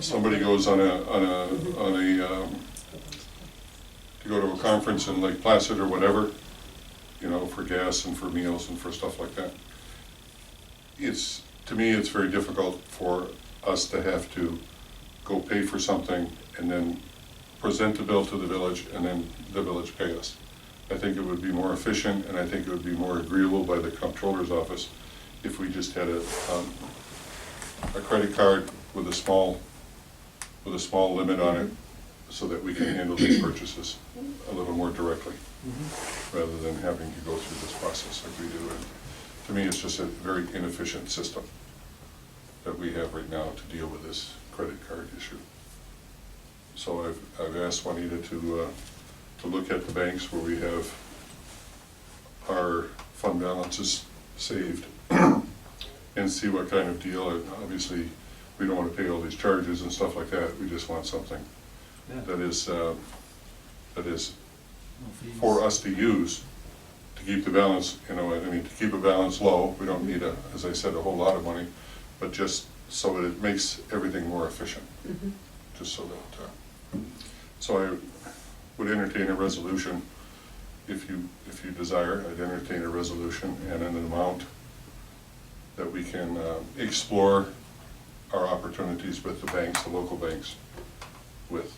somebody goes on a, on a, on a, um, to go to a conference in Lake Placid or whatever, you know, for gas and for meals and for stuff like that. It's, to me, it's very difficult for us to have to go pay for something and then present the bill to the village and then the village pay us. I think it would be more efficient and I think it would be more agreeable by the comptroller's office if we just had a, um, a credit card with a small, with a small limit on it so that we can handle these purchases a little more directly rather than having to go through this process like we do. And To me, it's just a very inefficient system that we have right now to deal with this credit card issue. So I've, I've asked Juanita to, uh, to look at the banks where we have our fund balances saved and see what kind of deal, and obviously, we don't wanna pay all these charges and stuff like that, we just want something Yeah. that is, uh, that is No fees. for uh, us to use to keep the balance, you know, I mean, to keep a balance low. We don't need a, as I said, a whole lot of money, but just so that it makes everything more efficient, Mhm. just so that, uh, so I would entertain a resolution if you, if you desire, I'd entertain a resolution and an amount that we can, uh, explore our opportunities with the banks, the local banks, with.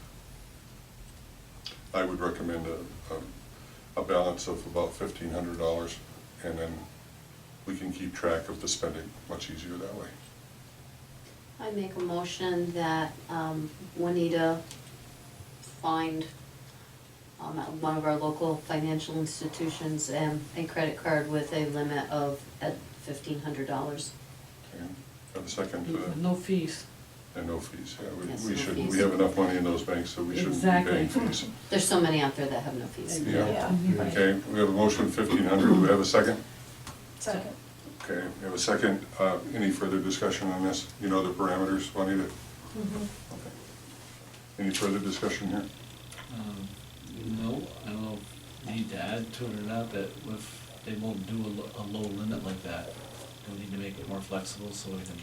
I would recommend a, a, a balance of about fifteen hundred dollars, and then we can keep track of the spending much easier that way. I make a motion that um, Juanita find um, at one of our local financial institutions um, a credit card with a limit of at fifteen hundred dollars. Okay, Have a second to With that, no fees. and no fees, yeah, Yes, we, we no should, we fees. have enough money in those banks, so we shouldn't be paying Exactly. fees. There's so many out there that have no fees. Yeah. Mm-hmm. Mhm. Okay, we have a motion fifteen hundred, do we have a second? Second. Okay, we have a second, uh, any further discussion on this, you know the parameters, Juanita? Okay. Any further discussion here? Um, No, I don't know if you need to add to it or not, but if they won't do a, lo- a low limit like that, they'll need to make it more flexible so we can.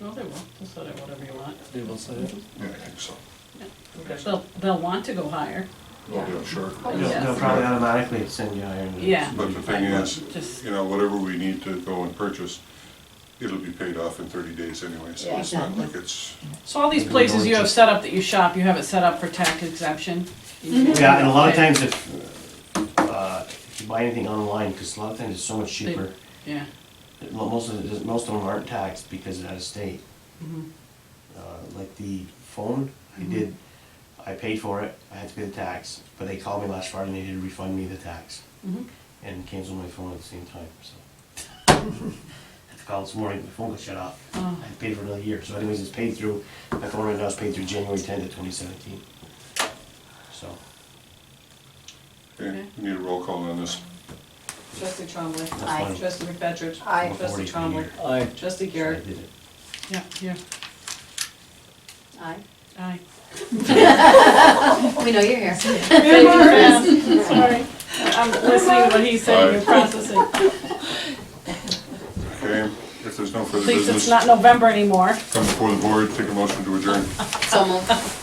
No, they will, they'll set it whatever you want. They will say Yeah, I think so. They'll, they'll want to go higher. Well, yeah, sure. Oh, Yeah. yeah. They'll they'll probably automatically send you higher. than- Yeah. But the thing is, Just- you know, whatever we need to go and purchase, it'll be paid off in thirty days anyway, so it's not Exactly. like it's, So all these places you have set up that you shop, you have it set up for tax exemption? Mm-hmm. Yeah, and a lot of times if, uh, if you buy anything online, because a lot of times it's so much cheaper, Yeah, it- mo- most of it, most of them aren't taxed because it's out of state. Mhm. Uh, Like the phone, I did, I paid for it, I had to pay the tax, but they called me last Friday and they did refund me the tax Mhm. and canceled my phone at the same time, so. Had to call this morning, my phone got shut off. Oh. I paid for another year, so anyways, it's paid through, my phone right now is paid through January tenth of twenty seventeen. So, okay, Okay. we need a roll call on this. Trustee Trombley. that's Aye. why Trustee McFetrich. Aye. Trustee 440 for the Trombley. year. Aye. Trustee So I Garrett. did it. yeah, yeah, Aye. aye. We know you're here. Sorry, I'm listening to what he's saying and Aye. processing. Okay, if there's no further At least it's business, not November anymore. come before the board, take a motion to adjourn. So moved.